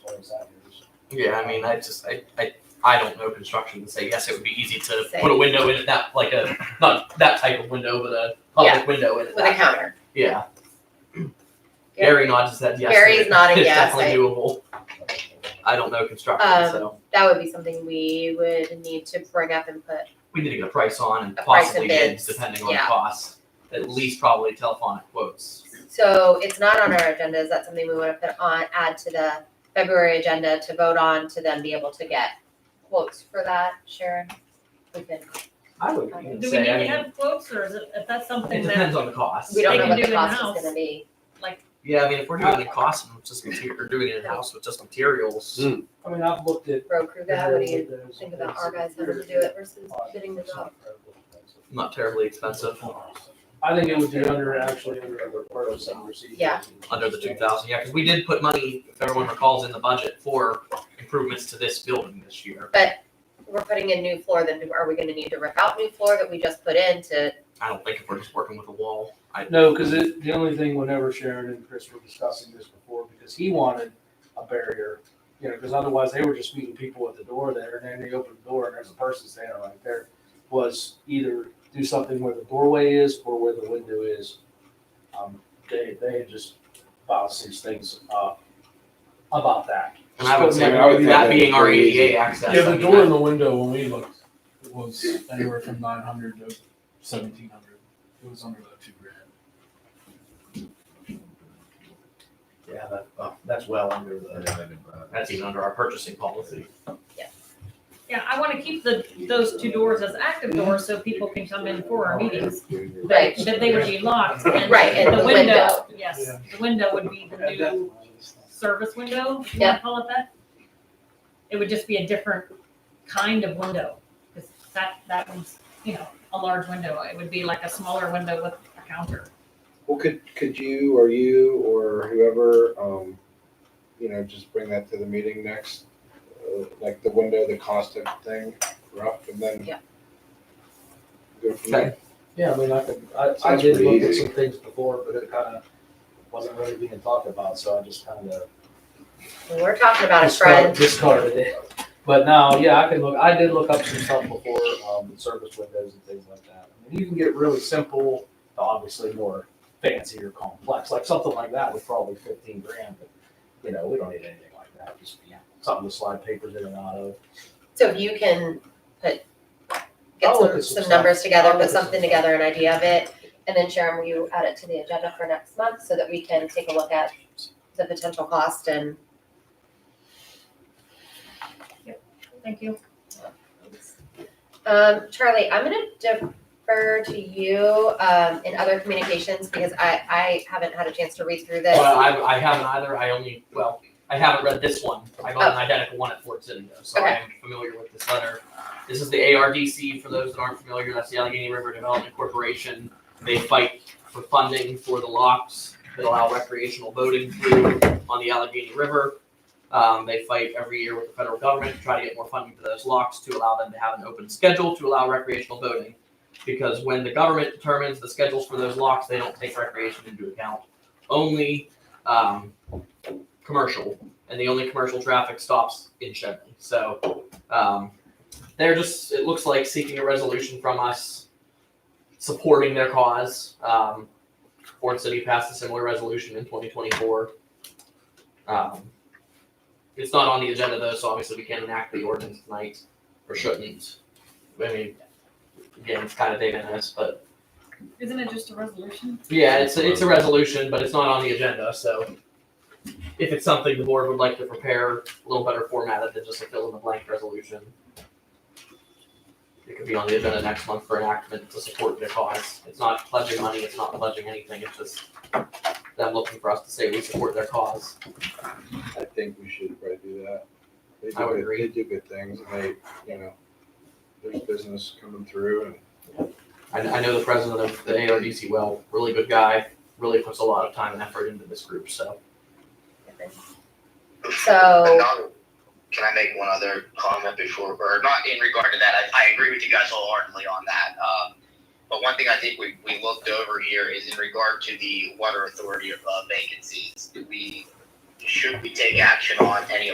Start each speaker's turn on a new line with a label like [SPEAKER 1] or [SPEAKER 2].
[SPEAKER 1] Yeah, I mean, I just I, I I don't know construction to say yes. It would be easy to
[SPEAKER 2] Say-
[SPEAKER 1] put a window in it that like a not that type of window, but a public
[SPEAKER 2] Yeah.
[SPEAKER 1] window in it.
[SPEAKER 2] with a
[SPEAKER 1] that-
[SPEAKER 2] counter.
[SPEAKER 1] Yeah.
[SPEAKER 2] Yeah.
[SPEAKER 1] Gary nods his head yes.
[SPEAKER 2] Gary's nodding
[SPEAKER 1] it's
[SPEAKER 2] yes,
[SPEAKER 1] definitely doable. I don't know construction,
[SPEAKER 2] Um,
[SPEAKER 1] so
[SPEAKER 2] That would be something we would need to bring up and put.
[SPEAKER 1] we need to get a price on and
[SPEAKER 2] A price and
[SPEAKER 1] possibly
[SPEAKER 2] bids,
[SPEAKER 1] bids depending on
[SPEAKER 2] yeah.
[SPEAKER 1] cost. At least probably telephonic quotes.
[SPEAKER 2] So it's not on our agenda. Is that something we want to put on, add to the February agenda to vote on to then be able to get quotes for that, Sharon? We can,
[SPEAKER 1] I would
[SPEAKER 2] Okay.
[SPEAKER 1] even
[SPEAKER 3] Do we need
[SPEAKER 1] say. I
[SPEAKER 3] to
[SPEAKER 1] mean,
[SPEAKER 3] have quotes or is it, if that's
[SPEAKER 1] it
[SPEAKER 3] something that,
[SPEAKER 1] depends on the cost.
[SPEAKER 2] we don't
[SPEAKER 3] They
[SPEAKER 2] know
[SPEAKER 3] can
[SPEAKER 2] what
[SPEAKER 3] do
[SPEAKER 2] the cost
[SPEAKER 3] in-house.
[SPEAKER 2] is gonna be.
[SPEAKER 3] like,
[SPEAKER 1] Yeah, I mean, if we're doing the cost and just material, or doing it in house with just materials,
[SPEAKER 4] Mm.
[SPEAKER 5] I mean, I've looked at.
[SPEAKER 2] Bro crew guy, what do you
[SPEAKER 5] those-
[SPEAKER 2] think about our guys having to do it versus bidding the
[SPEAKER 5] It's
[SPEAKER 2] job?
[SPEAKER 5] not terribly expensive.
[SPEAKER 1] not terribly expensive.
[SPEAKER 5] I think it would be under, actually, under other part of some procedures.
[SPEAKER 2] Yeah.
[SPEAKER 1] Under the two thousand, yeah, because we did put money, if everyone recalls, in the budget for improvements to this building this year.
[SPEAKER 2] We're putting in new floor, then are we gonna need to rip out new floor that we just put in to,
[SPEAKER 1] I don't think if we're just working with a wall, I.
[SPEAKER 5] No, because it, the only thing, whenever Sharon and Chris were discussing this before, because he wanted a barrier, you know, because otherwise they were just meeting people at the door there, and then they open the door and there's a person standing right there, was either do something where the doorway is or where the window is. Um, they, they had just filed some things, uh, about that.
[SPEAKER 1] And I would say,
[SPEAKER 4] I would think
[SPEAKER 1] that
[SPEAKER 4] that'd
[SPEAKER 1] being
[SPEAKER 4] be
[SPEAKER 1] our
[SPEAKER 4] pretty easy.
[SPEAKER 1] ADA access.
[SPEAKER 6] Yeah,
[SPEAKER 1] I
[SPEAKER 6] the
[SPEAKER 1] mean,
[SPEAKER 6] door
[SPEAKER 1] that-
[SPEAKER 6] and the window when we looked was anywhere from nine hundred to seventeen hundred. It was under the two grand.
[SPEAKER 1] Yeah, that, oh, that's well under the, that's even under our purchasing policy.
[SPEAKER 3] yeah, I wanna keep the, those two doors as active doors so people can come in for our meetings.
[SPEAKER 2] Right.
[SPEAKER 3] But they would be locked and
[SPEAKER 2] Right, and
[SPEAKER 3] the
[SPEAKER 2] the
[SPEAKER 3] window,
[SPEAKER 2] window.
[SPEAKER 3] yes, the window would be the new service window, if you
[SPEAKER 2] Yeah.
[SPEAKER 3] wanna call it that? It would just be a different kind of window, cause that, that one's, you know, a large window, it would be like a smaller window with a counter.
[SPEAKER 4] Well, could, could you or you or whoever, um, you know, just bring that to the meeting next? uh, Like the window, the cost of thing, rough, and then.
[SPEAKER 2] Yeah.
[SPEAKER 4] Go from there.
[SPEAKER 5] Yeah, I mean, I could, I, I
[SPEAKER 4] Sounds
[SPEAKER 5] did
[SPEAKER 4] pretty
[SPEAKER 5] look at
[SPEAKER 4] easy.
[SPEAKER 5] some things before, but it kind of wasn't really being talked about, so I just kind of.
[SPEAKER 2] we're talking about a friend.
[SPEAKER 5] Discarded it. But now, yeah, I can look, I did look up some stuff before, um, service windows and things like that. I mean, You can get really simple, to obviously more fancy or complex, like something like that would probably fifteen grand, but, you know, we don't need anything like that, just, yeah, something to slide papers in and out of.
[SPEAKER 2] So if you can put, get
[SPEAKER 5] I'll look
[SPEAKER 2] some,
[SPEAKER 5] at some
[SPEAKER 2] some
[SPEAKER 5] stuff.
[SPEAKER 2] numbers together,
[SPEAKER 5] I'll look
[SPEAKER 2] put
[SPEAKER 5] at some
[SPEAKER 2] something
[SPEAKER 5] stuff.
[SPEAKER 2] together, an idea of it, and then Sharon, will you add it to the agenda for next month so that we can take a look at the potential cost and
[SPEAKER 3] Thank you.
[SPEAKER 2] Um, Charlie, I'm gonna defer to you, um, in other communications because I, I haven't had a chance to read through this.
[SPEAKER 1] Well, I, I haven't either, I only, well, I haven't read this one, I got an identical one at Fort Sitter, so I
[SPEAKER 2] Oh. Okay.
[SPEAKER 1] am familiar with this letter. This is the ARDC, for those that aren't familiar, that's the Allegheny River Development Corporation, they fight for funding for the locks that allow recreational boating through on the Allegheny River. Um, they fight every year with the federal government to try to get more funding for those locks to allow them to have an open schedule to allow recreational boating. Because when the government determines the schedules for those locks, they don't take recreation into account. Only um, commercial, and the only commercial traffic stops in Chevy. So um, they're just, it looks like seeking a resolution from us supporting their cause. Um, Ford City passed a similar resolution in 2024. Um, it's not on the agenda though, so obviously we can't enact the ordinance tonight, or shouldn't. I mean, again, it's kind of de minimis, but
[SPEAKER 3] Isn't it just a resolution?
[SPEAKER 1] yeah, it's a, it's a resolution, but it's not on the agenda, so if it's something the board would like to prepare, a little better formatted than just a fill in the blank resolution. It could be on the agenda next month for enactment to support their cause. It's not pledging money, it's not pledging anything, it's just them looking for us to say we support their cause.
[SPEAKER 4] I think we should probably do that. They do
[SPEAKER 1] I would
[SPEAKER 4] good-
[SPEAKER 1] agree.
[SPEAKER 4] They do good things, and they, you know, there's business coming through and.
[SPEAKER 1] I, I know the president of the ARDC well, really good guy, really puts a lot of time and effort into this group, so.
[SPEAKER 2] So,
[SPEAKER 7] Another- Can I make one other comment before, or not in regard to that? I, I agree with you guys wholeheartedly on that. Um, but one thing I think we, we looked over here is in regard to the water authority of uh, vacancies. Do we, should we take action on any of